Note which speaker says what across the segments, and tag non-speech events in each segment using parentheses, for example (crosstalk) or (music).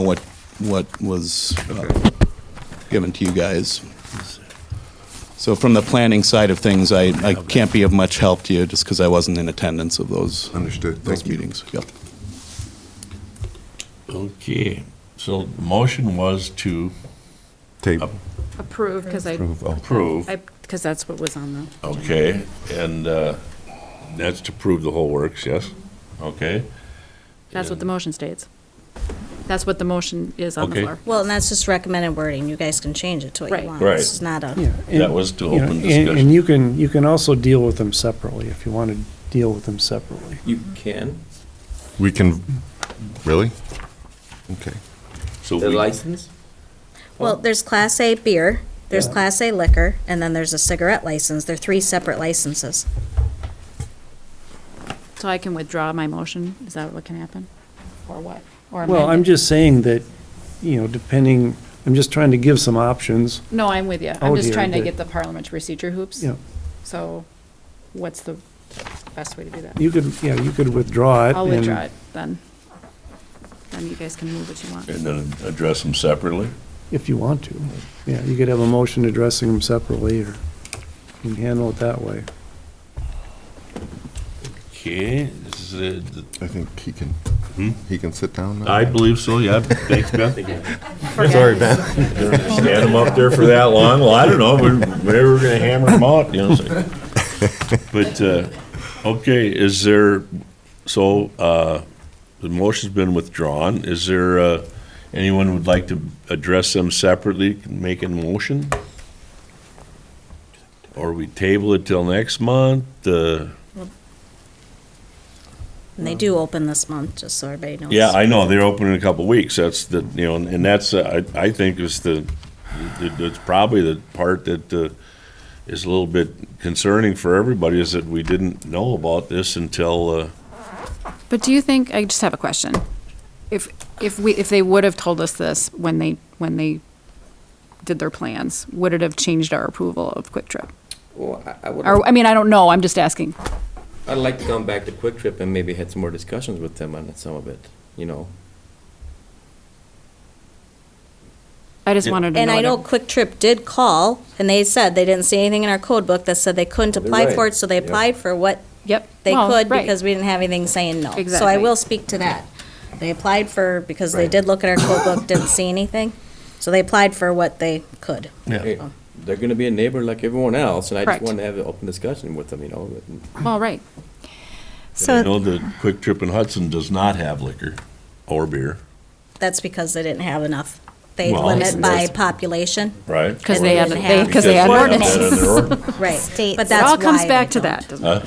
Speaker 1: what, what was uh, given to you guys. So from the planning side of things, I, I can't be of much help to you just because I wasn't in attendance of those,
Speaker 2: Understood.
Speaker 1: those
Speaker 2: Thank you.
Speaker 1: meetings. Yep.
Speaker 3: Okay, so the motion was to
Speaker 2: Table.
Speaker 4: Approve, because I,
Speaker 2: Approve. Oh,
Speaker 3: approve,
Speaker 4: because that's what was on the.
Speaker 3: okay, and uh, that's to prove the whole works, yes? Okay,
Speaker 4: That's what the motion states. That's what the motion is on the
Speaker 3: Okay.
Speaker 4: floor.
Speaker 5: Well, and that's just recommended wording. You guys can change it to what
Speaker 4: Right.
Speaker 5: you want.
Speaker 3: Right.
Speaker 5: This is not a.
Speaker 6: Yeah, and,
Speaker 3: That was to
Speaker 6: you know,
Speaker 3: open
Speaker 6: and-
Speaker 3: discussion.
Speaker 6: And you can, you can also deal with them separately if you want to deal with them separately.
Speaker 7: You can?
Speaker 2: We can, really? Okay.
Speaker 3: so
Speaker 7: The
Speaker 3: we,
Speaker 7: license?
Speaker 5: Well, there's Class A beer, there's
Speaker 7: Yeah.
Speaker 5: Class A liquor, and then there's a cigarette license. They're three separate licenses.
Speaker 4: So I can withdraw my motion? Is that what can happen? Or what? Or
Speaker 6: Well,
Speaker 4: amend
Speaker 6: I'm
Speaker 4: it?
Speaker 6: just saying that, you know, depending, I'm just trying to give some options.
Speaker 4: No, I'm with you. I'm
Speaker 6: Oh,
Speaker 4: just
Speaker 6: dear,
Speaker 4: trying to
Speaker 6: dear.
Speaker 4: get the parliamentary procedure hoops.
Speaker 6: Yeah,
Speaker 4: So what's the best way to do that?
Speaker 6: you could, yeah, you could withdraw it.
Speaker 4: I'll
Speaker 6: and-
Speaker 4: withdraw it then. Then you guys can move what you want.
Speaker 3: and then address them separately?
Speaker 6: If you want to. Yeah, you could have a motion addressing them separately or you can handle it that way.
Speaker 3: Okay, this is, a-
Speaker 2: I think he can, he can sit down now.
Speaker 3: I believe so, yeah, thanks, Ben.
Speaker 4: Sorry,
Speaker 3: Stand them up there for that long, well, I don't know, we're- whenever we're gonna hammer them out, you know, so. But, uh, okay, is there, so, uh, the motion's been withdrawn, is there, uh, anyone would like to address them separately, make a motion? Or we table it till next month, uh,
Speaker 5: And they
Speaker 4: Mm.
Speaker 5: do open this month, just so everybody knows.
Speaker 3: yeah, I know, they're open in a couple weeks, that's the, you know, and that's, uh, I, I think is the, it- it's probably the part that, uh, is a little bit concerning for everybody, is that we didn't know about this until, uh,
Speaker 4: But do you think, I just have a question. If, if we, if they would have told us this when they, when they did their plans, would it have changed our approval of Quick Trip?
Speaker 7: Well, I- I would,
Speaker 4: Or, I mean, I don't know, I'm just asking.
Speaker 7: I'd like to come back to Quick Trip and maybe had some more discussions with them on some of it, you know?
Speaker 4: I just wanted to
Speaker 5: And
Speaker 4: know.
Speaker 5: I know
Speaker 4: it-
Speaker 5: Quick Trip did call, and they said they didn't see anything in our code book that said they couldn't
Speaker 7: They're
Speaker 5: apply
Speaker 7: right.
Speaker 5: for it, so they
Speaker 7: Yep.
Speaker 5: applied for what
Speaker 4: Yep.
Speaker 5: they
Speaker 4: Well,
Speaker 5: could
Speaker 4: right.
Speaker 5: because we didn't have anything saying no. So I
Speaker 4: Exactly.
Speaker 5: will speak to that. They applied for, because they
Speaker 7: Right.
Speaker 5: did look at our code book, didn't see anything. So they applied for what they could.
Speaker 7: Hey, They're gonna be a neighbor like everyone else, and I just
Speaker 4: Correct.
Speaker 7: want to have an open discussion with them, you know? and-
Speaker 4: Well, right.
Speaker 3: and I know that Quick Trip in Hudson does not have liquor or beer.
Speaker 5: That's because they didn't have enough. They
Speaker 3: Well,
Speaker 5: limit by
Speaker 7: that's-
Speaker 4: (laughs)
Speaker 5: population,
Speaker 3: Right.
Speaker 4: 'Cause they
Speaker 5: had- they- 'cause
Speaker 4: they had
Speaker 3: that in their ordinance.
Speaker 5: right. But
Speaker 4: It
Speaker 5: that's
Speaker 4: all comes
Speaker 5: why
Speaker 4: back to
Speaker 5: they don't.
Speaker 4: that, doesn't it?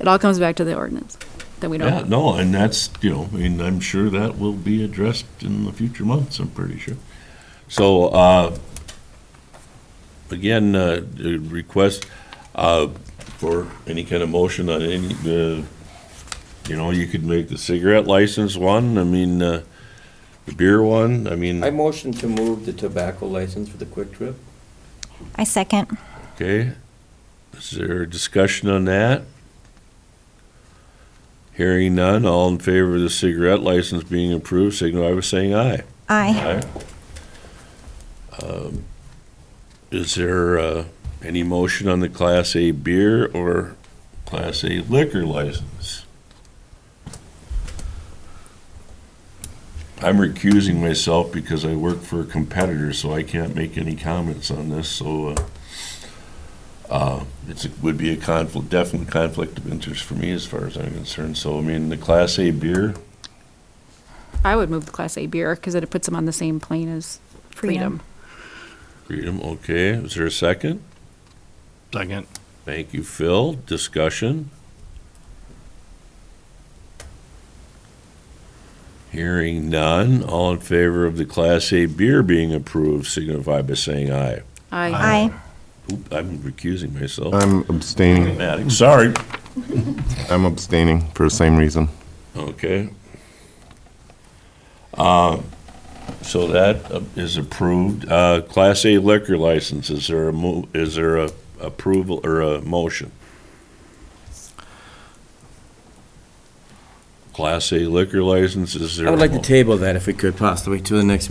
Speaker 4: It all comes back to the ordinance that we
Speaker 3: Yeah,
Speaker 4: don't,
Speaker 3: no, and that's, you know, I mean, I'm sure that will be addressed in the future months, I'm pretty sure. So, uh, again, uh, the request, uh, for any kind of motion on any, uh, you know, you could make the cigarette license one, I mean, uh, the beer one, I mean,
Speaker 7: I motion to move the tobacco license for the Quick Trip.
Speaker 8: I second.
Speaker 3: okay. Is there a discussion on that? Hearing none, all in favor of the cigarette license being approved, signify by saying aye.
Speaker 8: I
Speaker 3: Um, Is there uh, any motion on the Class A beer or Class A liquor license? I'm recusing myself because I work for a competitor, so I can't make any comments on this, so uh, uh, it's, it would be a conflict, definite conflict of interest for me as far as I'm concerned. So, I mean, the Class A beer,
Speaker 4: I would move the Class A beer because it puts them on the same plane as Freedom.
Speaker 3: freedom, okay. Is there a second?
Speaker 9: Second.
Speaker 3: Thank you, Phil. Discussion? Hearing none. All in favor of the Class A beer being approved signify by saying aye.
Speaker 4: I,
Speaker 8: I
Speaker 3: Oop, I'm recusing myself.
Speaker 2: I'm abstaining.
Speaker 3: Matic, Sorry.
Speaker 2: I'm abstaining for the same reason.
Speaker 3: Okay. Uh, So that uh, is approved. Uh, Class A liquor license, is there a mo, is there a approval or a motion? Class A liquor license, is there?
Speaker 7: I would like
Speaker 3: a
Speaker 7: to
Speaker 3: mo-
Speaker 7: table that if we could possibly to the next meeting.